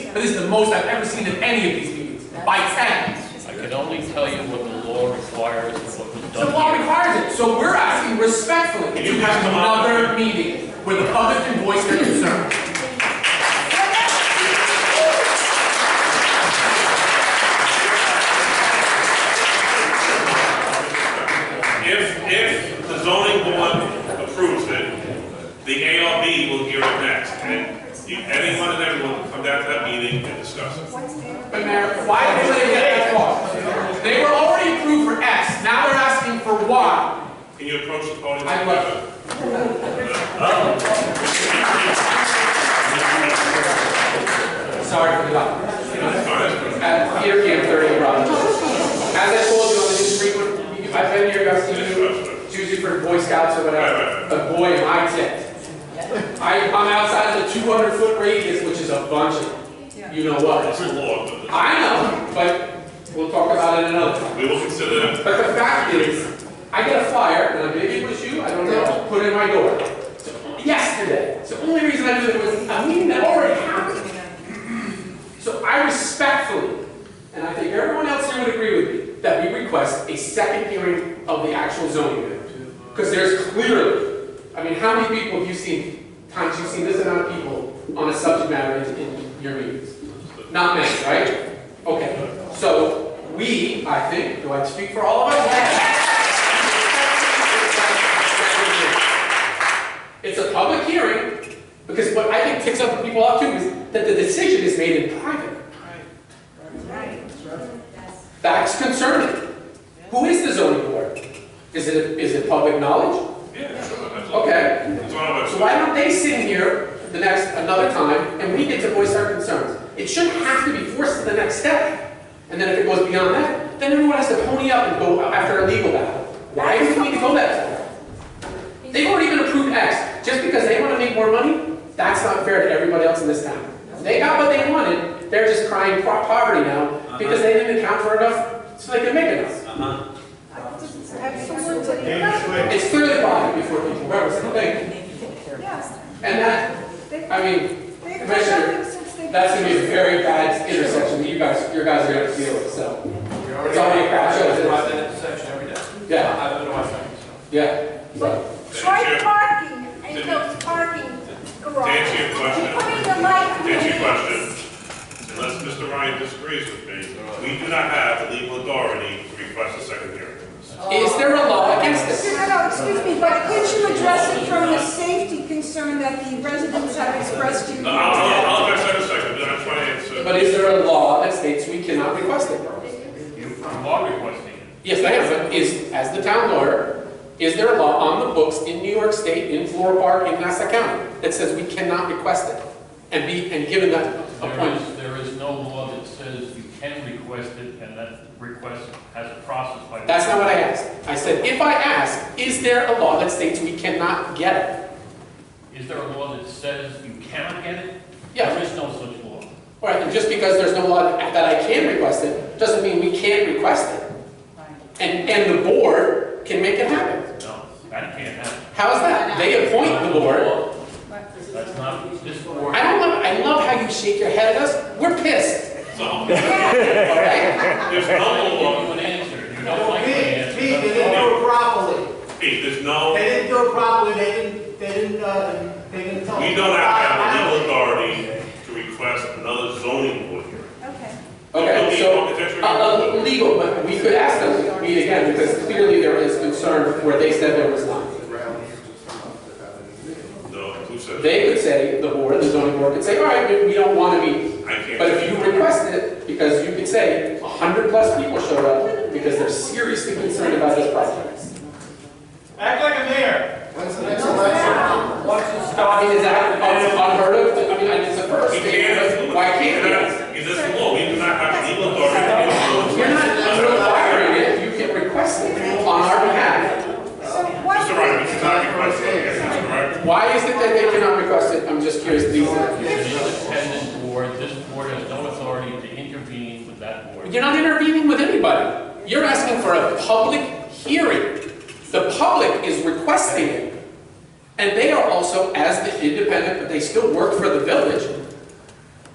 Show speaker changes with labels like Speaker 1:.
Speaker 1: This is the most I've ever seen in any of these meetings, by ten.
Speaker 2: I can only tell you what the law requires and what was
Speaker 1: The law
Speaker 2: done here.
Speaker 1: requires it, so we're asking respectfully
Speaker 3: Can
Speaker 1: to
Speaker 3: you
Speaker 1: have
Speaker 3: come up?
Speaker 1: another meeting where the public can voice their concern.
Speaker 3: If, if the zoning board approves it, the ARB will hear it next, and you- anyone and everyone will come down to that meeting and discuss it.
Speaker 1: But Mayor, why did they get that far? They were already approved for X, now they're asking for Y.
Speaker 3: Can you approach the podium?
Speaker 1: I will. Sorry for the awkward. At here, here, thirty Rock. As I told you, I'm just frequent, I've been here, I've seen you, it's usually for Boy Scouts or whatever, but boy, am I ticked. I, I'm outside the two hundred foot radius, which is a bunch of, you know what.
Speaker 3: It's a law, but
Speaker 1: I know, but we'll talk about it another time.
Speaker 3: we will consider that.
Speaker 1: But the fact is, I get a flyer, and maybe it was you, I don't know, put in my door. So, Yesterday. So the only reason I knew there was a meeting that already happened. So I respectfully, and I think everyone else here would agree with me, that we request a second hearing of the actual zoning bill. Because there's clearly, I mean, how many people have you seen, times you've seen this amount of people on a subject matter in- in your meetings? Not many, right? Okay, so we, I think, do I speak for all of us? It's a public hearing, because what I think ticks up people off too is that the decision is made in private. That's concerning. Who is the zoning board? Is it, is it public knowledge?
Speaker 3: Yeah, sure, absolutely.
Speaker 1: Okay,
Speaker 3: It's on our
Speaker 1: so
Speaker 3: website.
Speaker 1: why don't they sit in here the next, another time, and we get to voice our concerns? It shouldn't have to be forced to the next step. And then if it goes beyond that, then everyone has to pony up and go after a legal battle. Why do we need to go that far? They've already been approved X. Just because they want to make more money, that's not fair to everybody else in this town. They got what they wanted, they're just crying po- poverty now because they didn't account for enough so they could make enough. It's clearly body before people, whoever's the thing.
Speaker 4: Yes,
Speaker 1: And that,
Speaker 4: they,
Speaker 1: I mean,
Speaker 4: they've done
Speaker 1: Commissioner,
Speaker 4: nothing since they.
Speaker 1: That's gonna be a very bad intersection that you guys, your guys are gonna deal with, so,
Speaker 5: It's
Speaker 1: It's already a crap show, isn't it?
Speaker 5: About that intersection every day.
Speaker 1: yeah,
Speaker 5: I've been to my second, so.
Speaker 1: yeah.
Speaker 4: But Troy parking, Angel's parking
Speaker 3: To
Speaker 4: garage.
Speaker 3: answer your
Speaker 4: Putting
Speaker 3: question,
Speaker 4: the light.
Speaker 3: to answer your question, unless Mr. Ryan disagrees with me, we do not have the legal authority to request a second hearing.
Speaker 1: Is there a law against this?
Speaker 4: No, no, excuse me, but could you address it from the safety concern that the residents have expressed to you?
Speaker 3: No, I'll, I'll, I'll address that in a second, but I'm trying to answer.
Speaker 1: But is there a law that states we cannot request it?
Speaker 2: Law requesting.
Speaker 1: Yes, I am, but is, as the town lawyer, is there a law on the books in New York State, in Flore Park, in Nassau County, that says we cannot request it? And be, and given that
Speaker 2: There
Speaker 1: appointment?
Speaker 2: is, there is no law that says you can request it, and that request has a process by. which-
Speaker 1: That's not what I asked. I said, if I ask, is there a law that states we cannot get it?
Speaker 2: Is there a law that says you cannot get it?
Speaker 1: Yeah.
Speaker 2: There is no such law.
Speaker 1: All right, and just because there's no law that I can request it, doesn't mean we can't request it. And, and the board can make it happen.
Speaker 2: No, that can't happen.
Speaker 1: How's that? They appoint the board.
Speaker 2: That's not, this board,
Speaker 1: I don't love, I love how you shake your head at us. We're pissed,
Speaker 3: So,
Speaker 4: Yeah,
Speaker 1: all right?
Speaker 3: there's
Speaker 2: I
Speaker 3: no
Speaker 2: don't give
Speaker 3: law,
Speaker 2: you an answer. You don't like my answer.
Speaker 5: Pete, Pete, they didn't do it properly.
Speaker 3: Pete, there's no,
Speaker 5: They didn't do it properly, they didn't, they didn't, uh, they didn't tell.
Speaker 3: we don't have the legal authority to request another zoning board hearing.
Speaker 4: okay.
Speaker 1: Okay, so, uh, uh, legal, but we could ask them to meet again because clearly there is concern where they said there was not.
Speaker 3: No, who said that?
Speaker 1: They could say, the board, the zoning board could say, all right, we- we don't want to meet.
Speaker 3: I can't.
Speaker 1: But if you request it, because you could say, a hundred plus people showed up because they're seriously concerned about this project.
Speaker 5: Act like a mayor.
Speaker 6: When's the next election?
Speaker 5: Once it
Speaker 1: I mean,
Speaker 5: starts.
Speaker 1: is that Oh, unheard of? I mean, it's a first,
Speaker 3: We can't.
Speaker 1: why can't we?
Speaker 3: It's just law, we do not have the legal authority.
Speaker 1: You're not requiring it, you can request it on our behalf.
Speaker 4: So what?
Speaker 3: Mr. Ryan, this is not requesting, yes, Mr. Ryan.
Speaker 1: Why is it that they cannot request it? I'm just curious, Lisa.
Speaker 2: It's an independent board. This board has no authority to intervene with that board.
Speaker 1: You're not intervening with anybody. You're asking for a public hearing. The public is requesting it. And they are also, as the independent, but they still work for the village,